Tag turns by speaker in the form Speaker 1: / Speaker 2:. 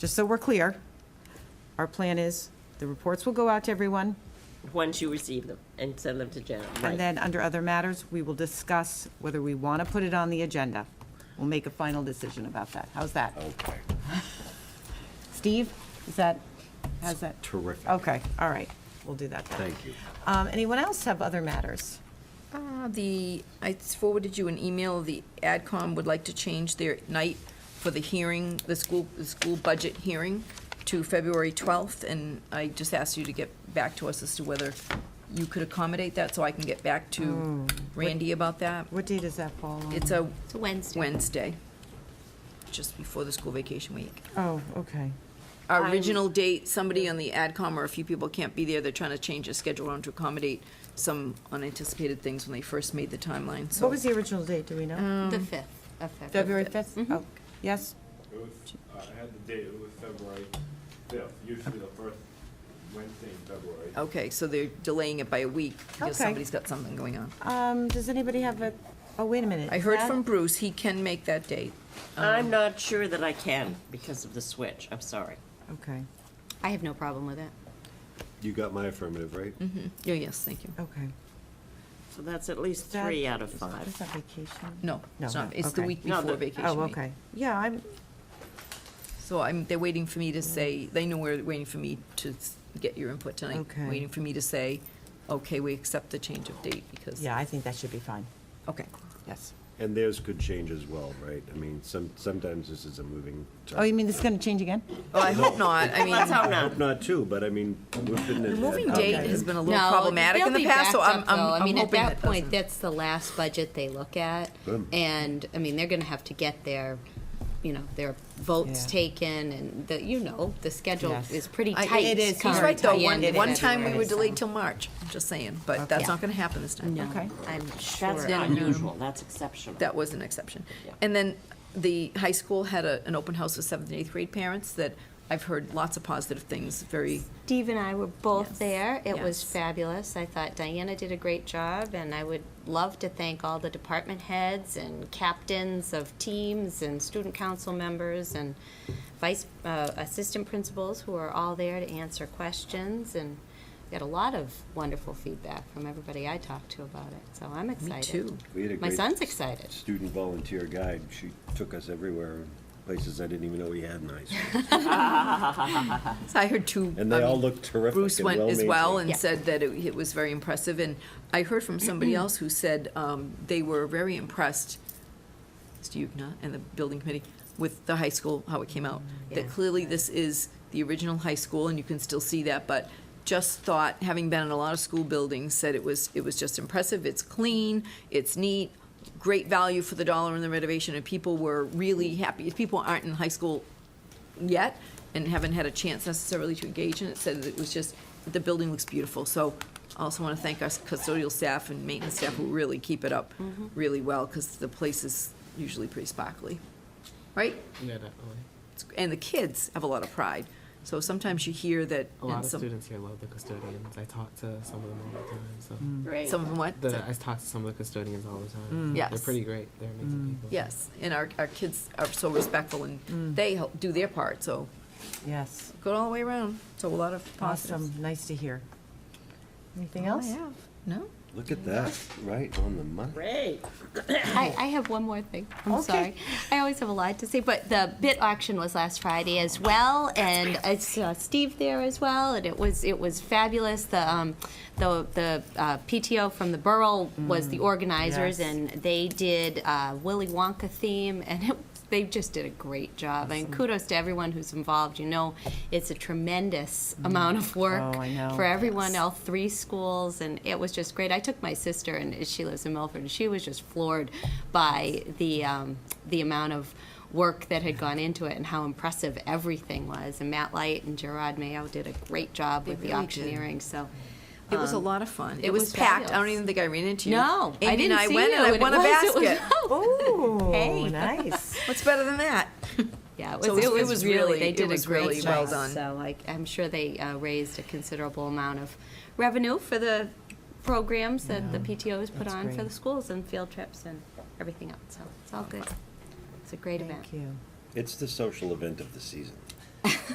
Speaker 1: just so we're clear, our plan is the reports will go out to everyone,
Speaker 2: Once you receive them and send them to Janet,
Speaker 1: and
Speaker 2: right?
Speaker 1: then under other matters, we will discuss whether we want to put it on the agenda. We'll make a final decision about that. How's that?
Speaker 3: Okay.
Speaker 1: Steve, is that, how's that?
Speaker 3: Terrific.
Speaker 1: Okay, all right, we'll do that then.
Speaker 3: Thank you.
Speaker 1: Um, Anyone else have other matters?
Speaker 4: Uh, The, I forwarded you an email, the AdCom would like to change their night for the hearing, the school, the school budget hearing to February 12th, and I just asked you to get back to us as to whether you could accommodate that, so I can get back
Speaker 1: Oh,
Speaker 4: to Randy about that.
Speaker 1: What date does that fall on?
Speaker 4: It's a
Speaker 5: It's a Wednesday.
Speaker 4: Wednesday, just before the school vacation week.
Speaker 1: Oh, okay.
Speaker 4: Our original date, somebody on the AdCom or a few people can't be there, they're trying to change the schedule around to accommodate some unanticipated things when they first made the timeline, so.
Speaker 1: What was the original date, do we
Speaker 4: Uh,
Speaker 1: know?
Speaker 5: The
Speaker 4: Mm.
Speaker 5: 5th of February.
Speaker 1: February 5th?
Speaker 4: mm-hmm.
Speaker 1: Oh, Yes?
Speaker 6: It was, uh, I had the date, it was February fifth, usually the first Wednesday in February.
Speaker 4: Okay, so they're delaying it by a week because
Speaker 1: Okay.
Speaker 4: somebody's got something going on.
Speaker 1: Um, Does anybody have a, oh, wait a minute.
Speaker 4: I
Speaker 1: is
Speaker 4: heard
Speaker 1: that-
Speaker 4: from Bruce, he can make that date.
Speaker 2: I'm not sure that I can because of the switch, I'm sorry.
Speaker 1: Okay,
Speaker 5: I have no problem with it.
Speaker 3: You got my affirmative, right?
Speaker 4: Mm-hmm. Yeah, yes, thank you.
Speaker 1: okay.
Speaker 2: So that's at least
Speaker 1: That-
Speaker 2: three out of
Speaker 1: is-
Speaker 2: five.
Speaker 1: Is that vacation?
Speaker 4: No, it's
Speaker 1: No,
Speaker 4: not, it's the
Speaker 1: okay.
Speaker 4: week
Speaker 2: No,
Speaker 4: before
Speaker 2: the-
Speaker 4: vacation
Speaker 1: Oh,
Speaker 4: week.
Speaker 1: okay. Yeah, I'm,
Speaker 4: So I'm, they're waiting for me to say, they know we're waiting for me to s- get your input tonight.
Speaker 1: Okay.
Speaker 4: Waiting for me to say, okay, we accept the change of date because,
Speaker 1: yeah, I think that should be fine.
Speaker 4: okay.
Speaker 1: Yes.
Speaker 3: And theirs could change as well, right? I mean, some, sometimes this is a moving
Speaker 1: Oh, you
Speaker 3: target.
Speaker 1: mean this is going to change again?
Speaker 4: Well, I hope not, I
Speaker 2: Let's
Speaker 4: mean,
Speaker 2: hope not.
Speaker 3: Not two, but I mean, we've been. in that
Speaker 4: moving
Speaker 3: target.
Speaker 4: date has been a
Speaker 5: No,
Speaker 4: little problematic
Speaker 5: they'll
Speaker 4: in the
Speaker 5: be
Speaker 4: past, so
Speaker 5: backed
Speaker 4: I'm,
Speaker 5: up,
Speaker 4: I'm
Speaker 5: though. I
Speaker 4: I'm
Speaker 5: mean, at
Speaker 4: hoping
Speaker 5: that
Speaker 4: that
Speaker 5: point,
Speaker 4: doesn't.
Speaker 5: that's the last budget they look at.
Speaker 3: Good.
Speaker 5: And, I mean, they're going to have to get their, you know, their votes
Speaker 1: Yeah.
Speaker 5: taken and the, you know, the schedule
Speaker 1: Yes.
Speaker 5: is pretty
Speaker 4: I-
Speaker 5: tight.
Speaker 4: it is. He's
Speaker 5: current
Speaker 4: right, though,
Speaker 5: at the
Speaker 4: one,
Speaker 5: end of
Speaker 4: one time we
Speaker 5: February,
Speaker 4: were
Speaker 5: so-
Speaker 4: delayed till March, I'm just saying, but that's not gonna happen this time.
Speaker 5: No,
Speaker 1: Okay.
Speaker 5: I'm sure.
Speaker 2: That's not unusual, that's exceptional.
Speaker 4: That was an exception.
Speaker 2: Yeah.
Speaker 4: And then the high school had a, an open house with seventh and eighth grade parents that I've heard lots of positive things, very,
Speaker 5: Steve and I were both
Speaker 4: Yes.
Speaker 5: there. It was
Speaker 4: Yes.
Speaker 5: fabulous. I thought Diana did a great job, and I would love to thank all the department heads and captains of teams and student council members and vice uh, assistant principals who are all there to answer questions. And we got a lot of wonderful feedback from everybody I talked to about it. So I'm excited.
Speaker 4: too.
Speaker 3: We had a
Speaker 5: My
Speaker 3: great
Speaker 5: son's excited.
Speaker 3: Student volunteer guide, she took us everywhere, places I didn't even know we had in high school.
Speaker 4: I heard two.
Speaker 3: And they
Speaker 4: I mean,
Speaker 3: all looked terrific
Speaker 4: Bruce
Speaker 3: and
Speaker 4: went as well
Speaker 3: well-maintained.
Speaker 4: and
Speaker 5: Yeah.
Speaker 4: said that it, it was very impressive. And I heard from somebody else who said um, they were very impressed, Steve Yukna and the building committee, with the high school, how it came out. That
Speaker 5: Yeah.
Speaker 4: clearly this is the original high school and you can still see that, but just thought, having been in a lot of school buildings, said it was, it was just impressive. It's clean, it's neat, great value for the dollar in the renovation and people were really happy. If people aren't in high school yet and haven't had a chance necessarily to engage in it, said that it was just, that the building looks beautiful. So I also want to thank our custodial staff and maintenance staff who really keep it up really well, because the place is usually pretty sparkly, right?
Speaker 7: Yeah, definitely.
Speaker 4: It's- And the kids have a lot of pride. So sometimes you hear that.
Speaker 7: A
Speaker 4: and
Speaker 7: lot of
Speaker 4: some-
Speaker 7: students here love the custodians. I talk to some of them all the time. So
Speaker 5: Mm.
Speaker 2: Great.
Speaker 4: Some of them what?
Speaker 7: the, I talk to some of the custodians all the time. They're
Speaker 4: Yes.
Speaker 7: pretty great. They're amazing people.
Speaker 4: Yes, and our, our kids are so respectful
Speaker 7: Mm.
Speaker 4: and they help do their part, so
Speaker 1: Yes.
Speaker 4: go all the way around. So a lot of positives.
Speaker 1: Awesome, nice to hear. Anything else?
Speaker 4: I have, Oh, no?
Speaker 3: Look at that, right on the money.
Speaker 2: Great.
Speaker 5: I, I have one more thing. I'm sorry. I always have a lot to say, but the bid auction was last Friday as well, and I saw Steve there as well, and it was it was fabulous. The um, the the uh, PTO from the borough was the
Speaker 1: Mm,
Speaker 5: organizers,
Speaker 1: yes.
Speaker 5: and they did uh, Willy Wonka theme, and it, they just did a great job. And kudos to everyone who's involved. You know, it's a tremendous amount of work
Speaker 1: Oh, I know.
Speaker 5: for everyone, all three schools, and it was just great. I took my sister, and she lives in Milford, and she was just floored by the um, the amount of work that had gone into it and how impressive everything was. And Matt Light and Gerard Mayo did a great job with the
Speaker 4: really did.
Speaker 5: auctioneering. So
Speaker 4: It was a
Speaker 5: um,
Speaker 4: lot of fun. It,
Speaker 5: it
Speaker 4: was,
Speaker 5: was
Speaker 4: packed. I don't
Speaker 5: fabulous.
Speaker 4: even think I ran into you.
Speaker 5: No,
Speaker 4: Amy
Speaker 5: I didn't
Speaker 4: and I
Speaker 5: see
Speaker 4: went
Speaker 5: you,
Speaker 4: and I
Speaker 5: and
Speaker 4: won
Speaker 5: it
Speaker 4: a
Speaker 5: was- it was- Oh,
Speaker 4: basket.
Speaker 1: Ooh,
Speaker 5: Hey.
Speaker 1: nice.
Speaker 4: What's better than that?
Speaker 5: yeah, it was,
Speaker 4: So it
Speaker 5: it
Speaker 4: was-
Speaker 5: was,
Speaker 4: it was
Speaker 5: really
Speaker 4: really-
Speaker 5: they
Speaker 4: it
Speaker 5: did
Speaker 4: was
Speaker 5: a great
Speaker 4: really
Speaker 5: job.
Speaker 4: well done.
Speaker 5: So like I'm sure they uh, raised a considerable amount of revenue for the programs that the PTO has put
Speaker 1: that's
Speaker 5: on for
Speaker 1: great.
Speaker 5: the schools and field trips and everything else. So it's all good. It's a great event.
Speaker 1: Thank you.
Speaker 3: It's the social event of the season.